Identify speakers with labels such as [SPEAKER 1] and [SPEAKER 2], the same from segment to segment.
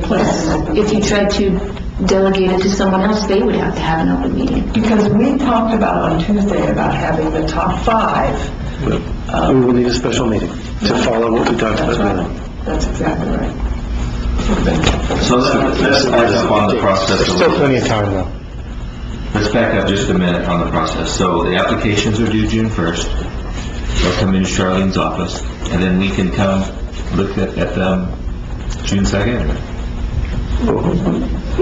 [SPEAKER 1] place,
[SPEAKER 2] If you tried to delegate it to someone else, they would have to have an open meeting.
[SPEAKER 1] because we talked about on Tuesday about having the top five.
[SPEAKER 3] Uh, We will need a special meeting to follow what we talked
[SPEAKER 1] That's
[SPEAKER 3] about now.
[SPEAKER 1] right, that's exactly right.
[SPEAKER 4] So let's let's back up on the process a
[SPEAKER 3] Still
[SPEAKER 4] little.
[SPEAKER 3] plenty of time, though.
[SPEAKER 4] Let's back up just a minute on the process. So the applications are due June 1st. They'll come into Charlene's office, and then we can come look at at them June 2nd.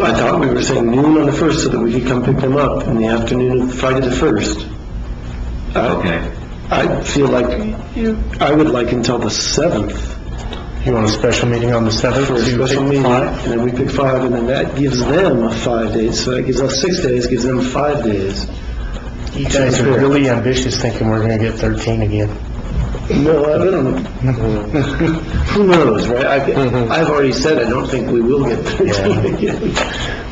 [SPEAKER 3] I thought we were saying noon on the 1st so that we could come pick them up in the afternoon of Friday the 1st. I-
[SPEAKER 4] Okay.
[SPEAKER 3] I feel like you- I would like until the 7th. You want a special meeting on the 7th? For a special meeting, and then we pick five, and then that gives them five days, so that gives us six days, gives them five days.
[SPEAKER 5] You guys are really ambitious thinking we're gonna get 13 again.
[SPEAKER 3] No, I don't know. Who knows, right?
[SPEAKER 6] Mm-hmm.
[SPEAKER 3] I- I've already said I don't think we will get 13 again,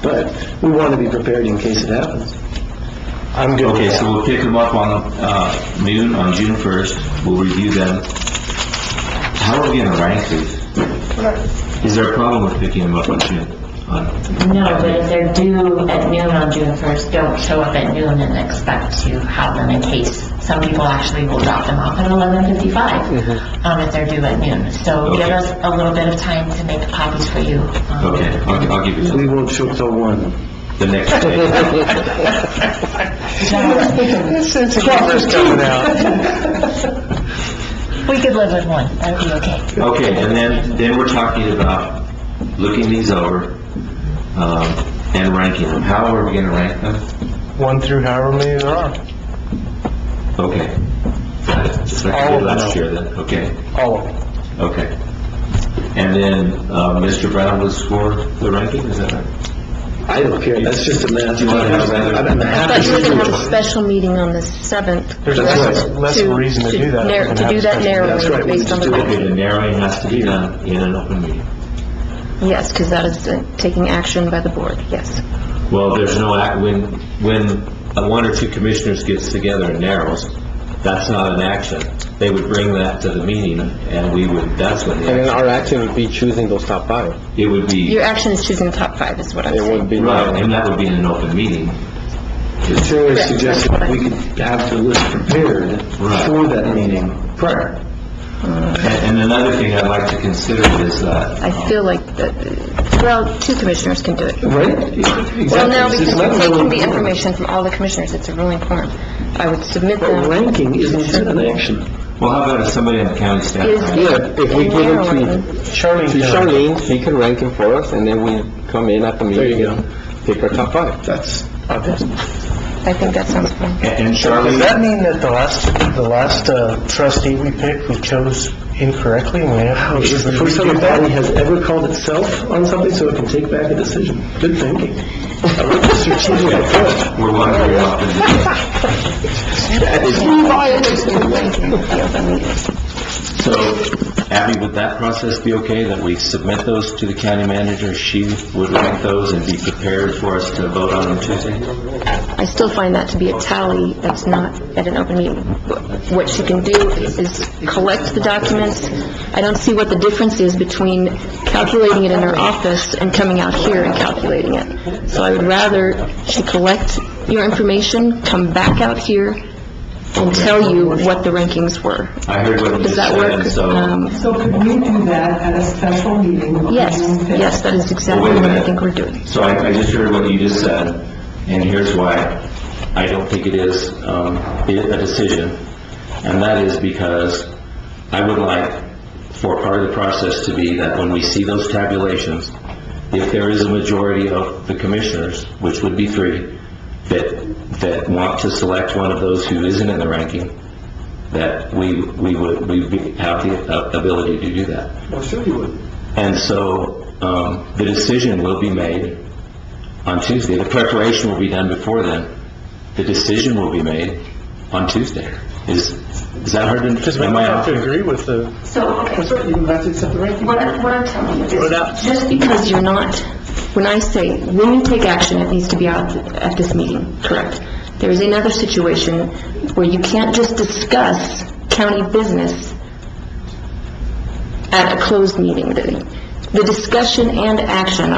[SPEAKER 3] but we want to be prepared in case it happens.
[SPEAKER 5] I'm good
[SPEAKER 4] Okay,
[SPEAKER 5] with
[SPEAKER 4] so
[SPEAKER 5] that.
[SPEAKER 4] we'll pick them up on uh, noon on June 1st. We'll review them. How are we going to rank these? Is there a problem with picking them up on June? on-
[SPEAKER 7] No, but if they're due at noon on June 1st, don't show up at noon and expect to have them in case. Some people actually will drop them off at 11:55, um, if they're due at noon. So give
[SPEAKER 4] Okay.
[SPEAKER 7] us a little bit of time to make copies for you. um,
[SPEAKER 4] Okay, I'll I'll give you
[SPEAKER 3] We
[SPEAKER 4] the-
[SPEAKER 3] won't show till 1.
[SPEAKER 4] the next day.
[SPEAKER 5] coming out.
[SPEAKER 7] We could live with one, that would be okay.
[SPEAKER 4] Okay, and then, then we're talking about looking these over, um, and ranking them. How are we gonna rank them?
[SPEAKER 5] One through however many there are,
[SPEAKER 4] Okay. Got it. Just like I
[SPEAKER 5] All
[SPEAKER 4] did
[SPEAKER 5] of
[SPEAKER 4] last
[SPEAKER 5] them.
[SPEAKER 4] year then, okay,
[SPEAKER 5] all of them.
[SPEAKER 4] okay. And then, uh, Mr. Brown was for the ranking, is that right?
[SPEAKER 3] I don't care, that's just a math.
[SPEAKER 4] Do you wanna have another-
[SPEAKER 3] I'm happy
[SPEAKER 2] But
[SPEAKER 3] to
[SPEAKER 2] you're
[SPEAKER 3] do
[SPEAKER 2] gonna have a
[SPEAKER 3] it.
[SPEAKER 2] special meeting on the 7th.
[SPEAKER 5] There's less, less reason to do that. if we're
[SPEAKER 2] narrow-
[SPEAKER 5] gonna
[SPEAKER 2] To
[SPEAKER 5] have
[SPEAKER 2] do
[SPEAKER 5] a
[SPEAKER 2] that
[SPEAKER 5] special-
[SPEAKER 3] That's right,
[SPEAKER 2] narrowing
[SPEAKER 3] we
[SPEAKER 2] based on
[SPEAKER 3] just do
[SPEAKER 2] the,
[SPEAKER 4] Okay, the narrowing has to be done in an open meeting.
[SPEAKER 2] yes, because that is uh, taking action by the board, yes.
[SPEAKER 4] Well, there's no, act when, when uh, one or two commissioners gets together and narrows, that's not an action. They would bring that to the meeting, and we would, that's when the action,
[SPEAKER 6] our action would be choosing those top five.
[SPEAKER 4] it would be.
[SPEAKER 2] Your action is choosing the top five, is what I'm
[SPEAKER 6] It wouldn't
[SPEAKER 2] saying.
[SPEAKER 6] be,
[SPEAKER 4] Right, and that would be in an open meeting.
[SPEAKER 3] Terry suggested that we could have the list prepared
[SPEAKER 4] Right.
[SPEAKER 3] for that meeting prior.
[SPEAKER 4] And and another thing I'd like to consider is uh, that,
[SPEAKER 2] I feel like, that- uh, well, two commissioners can do it.
[SPEAKER 3] Right?
[SPEAKER 2] Well,
[SPEAKER 3] Exactly.
[SPEAKER 2] no, because
[SPEAKER 3] It's not
[SPEAKER 2] we're taking the
[SPEAKER 3] really-
[SPEAKER 2] information from all the commissioners, it's a ruling form. I would submit
[SPEAKER 3] But
[SPEAKER 2] them.
[SPEAKER 3] ranking isn't an action.
[SPEAKER 4] well, how about if somebody on the county
[SPEAKER 2] Is-
[SPEAKER 4] staff?
[SPEAKER 6] yeah, if we give them to,
[SPEAKER 5] Charlene,
[SPEAKER 6] to
[SPEAKER 5] can-
[SPEAKER 6] Charlene, she could rank them for us, and then we come in at the meeting
[SPEAKER 3] you go.
[SPEAKER 6] and pick our top five.
[SPEAKER 3] That's,
[SPEAKER 2] I think that sounds fine.
[SPEAKER 4] And and
[SPEAKER 5] does
[SPEAKER 4] Charlene,
[SPEAKER 5] that mean that the last, the last uh, trustee we picked, we chose incorrectly? and We have
[SPEAKER 3] this is the first time a
[SPEAKER 5] redo that?
[SPEAKER 3] body has ever called itself on something so it can take back a decision. Good thinking. I like the strategic approach.
[SPEAKER 4] we're wondering about the... So, Abby, would that process be okay, that we submit those to the county manager? She would rank those and be prepared for us to vote on them Tuesday?
[SPEAKER 2] I still find that to be a tally that's not at an open meeting. What she can do is collect the documents. I don't see what the difference is between calculating it in her office and coming out here and calculating it. So I would rather she collect your information, come back out here, and tell you what the rankings were.
[SPEAKER 4] I heard what you just
[SPEAKER 2] Does that
[SPEAKER 4] said,
[SPEAKER 2] work?
[SPEAKER 4] and so...
[SPEAKER 2] Um,
[SPEAKER 1] So could we do that at a special meeting? on
[SPEAKER 2] Yes,
[SPEAKER 1] June fifth?
[SPEAKER 2] yes, that is exactly
[SPEAKER 4] Well, wait a
[SPEAKER 2] what I
[SPEAKER 4] minute.
[SPEAKER 2] think we're doing.
[SPEAKER 4] So I, I just heard what you just said, and here's why I don't think it is, um, i- a decision. And that is because I would like for part of the process to be that when we see those tabulations, if there is a majority of the commissioners, which would be three, that, that want to select one of those who isn't in the ranking, that we, we would, we be- have the a- ability to do that.
[SPEAKER 3] Well, sure you would.
[SPEAKER 4] And so, um, the decision will be made on Tuesday. The preparation will be done before then. The decision will be made on Tuesday. Is, is that hard to,
[SPEAKER 5] Because we
[SPEAKER 4] am
[SPEAKER 5] might
[SPEAKER 4] I
[SPEAKER 5] have
[SPEAKER 4] off?
[SPEAKER 5] to agree with the
[SPEAKER 2] So, okay.
[SPEAKER 3] That's right, you would have to accept the ranking.
[SPEAKER 2] What I- what I'm telling you
[SPEAKER 3] it out.
[SPEAKER 2] is, just because you're not, when I say, when you take action, it needs to be out at this meeting, correct? There is another situation where you can't just discuss county business at a closed meeting. The- The discussion and action